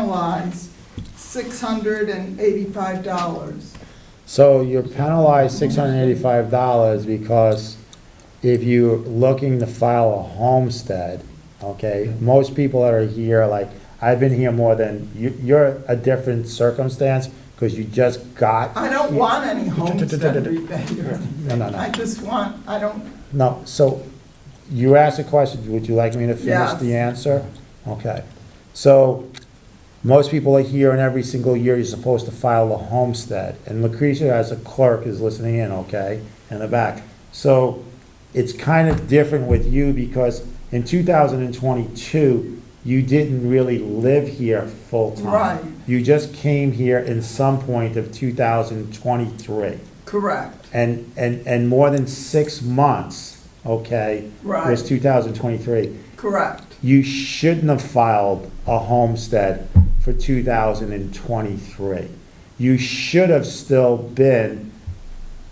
penalized six hundred and eighty-five dollars. So you're penalized six hundred and eighty-five dollars because if you're looking to file a homestead, okay, most people that are here, like, I've been here more than, you, you're a different circumstance, because you just got, I don't want any homestead rebate. no, no, I no. just want, I don't, No, so you asked a question, would you like me to finish Yes. the answer? Okay. So most people are here and every single year you're supposed to file a homestead. And Lucretia as a clerk is listening in, okay, in the back. So it's kind of different with you because in 2022, you didn't really live here full-time. Right. You just came here in some point of 2023 correct, and, and, and more than six months, okay? Right. Was 2023. correct. You shouldn't have filed a homestead for 2023. You should have still been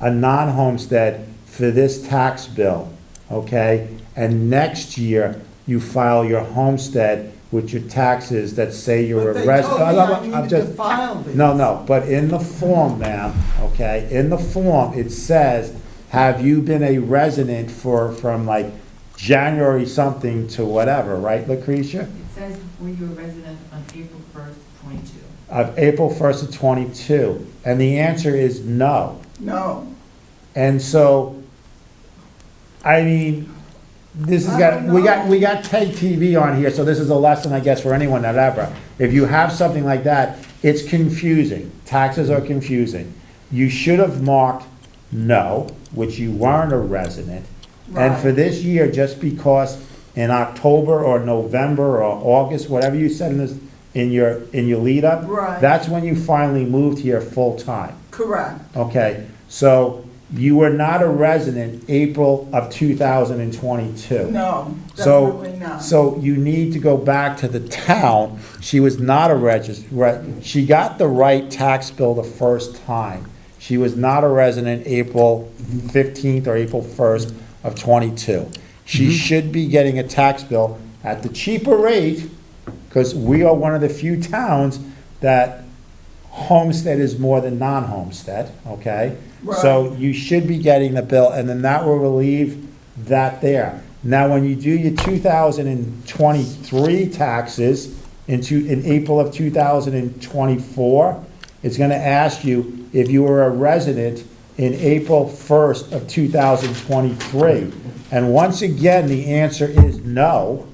a non-homestead for this tax bill, okay? And next year, you file your homestead with your taxes that say you're But a they resident. told me I needed to file these. No, no, but in the form, ma'am, okay, in the form, it says, have you been a resident for, from like January something to whatever, right, Lucretia? It says, were you a resident on April 1st, 22? Of April first of twenty-two, and the answer is no. No. And so, I mean, this has I got, don't we got, know. we got TED TV on here, so this is a lesson, I guess, for anyone that ever. If you have something like that, it's confusing. Taxes are confusing. You should have marked no, which you weren't a resident. And for Right. this year, just because in October or November or August, whatever you said in this, in your, in your lead up, Right. that's when you finally moved here full-time. Correct, Okay, so you were not a resident April of 2022. no, So- definitely not. So you need to go back to the town. She was not a regis, re- she got the right tax bill the first time. She was not a resident April 15th or April 1st of '22. She should be getting a tax bill at the cheaper rate, because we are one of the few towns that homestead is more than non-homestead, okay? So you should be getting the bill, and then that will relieve that there. Now, when you do your two thousand and twenty-three taxes into, in April of two thousand and twenty-four, it's gonna ask you if you were a resident in April first of two thousand twenty-three. And once again, the answer is no,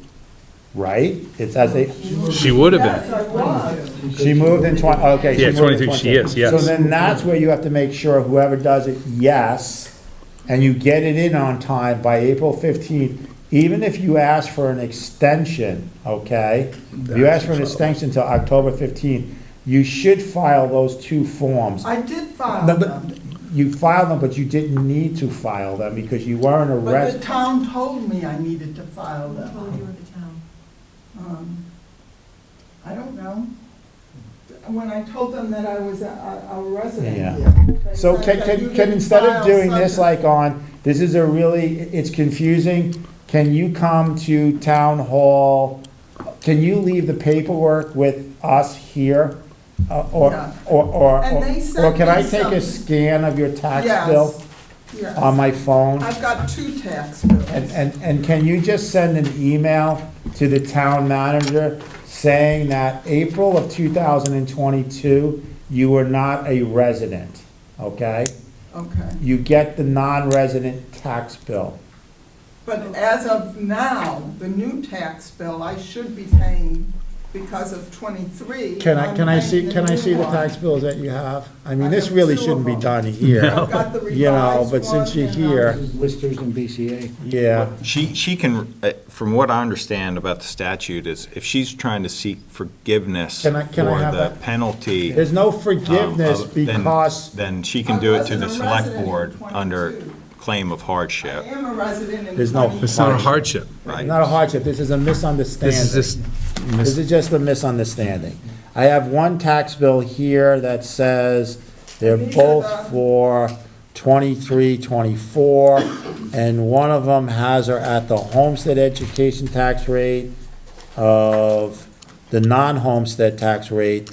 right? It's as a, She would have been. Yes, I was. she moved in twenty, okay. she Yeah, moved in 22, she is, yes. So then that's where you have to make sure whoever does it, yes, and you get it in on time by April fifteenth, even if you ask for an extension, okay? If you ask for an extension till October fifteenth, you should file those two forms. I did file No, but them, You filed them, but you didn't need to file them because you weren't a but the resident. town told me I needed to file Who told you them. were the town? Um, I don't know. When I told them that I was a- a, a resident Yeah. here. they So said can, that you can, can didn't instead of file doing this something. like on, this is a really, it's confusing, can you come to town hall? Can you leave the paperwork with us here? Uh, Or, Yeah. or, or, And they sent or can I me take a some- scan of your tax Yes, bill yes. on my phone? I've got two tax bills. And, and, and can you just send an email to the town manager saying that April of two thousand and twenty-two, you were not a resident, okay? Okay, you get the non-resident tax bill. but as of now, the new tax bill I should be paying because of twenty-three. Can I, I'm can I paying see, the can I new see the one. tax bills that you have? I mean, I this have really two of shouldn't be them. done here, I've got the you know, revised but since one you're and, here, Listers and BCA. yeah. She, she can, uh, from what I understand about the statute is if she's trying to seek forgiveness for Can I- can I have the that? penalty. There's no forgiveness um, of- then- because, Then she can do it to I the wasn't a select resident in board under 22. claim of I hardship, am a resident in There's no- twenty. It's not a hardship. right? not a hardship, this is a This is misunderstanding. just, This is just a misunderstanding. I have one tax bill here that says they're These are both the- for twenty-three, twenty-four, and one of them has her at the homestead education tax rate of the non-homestead tax rate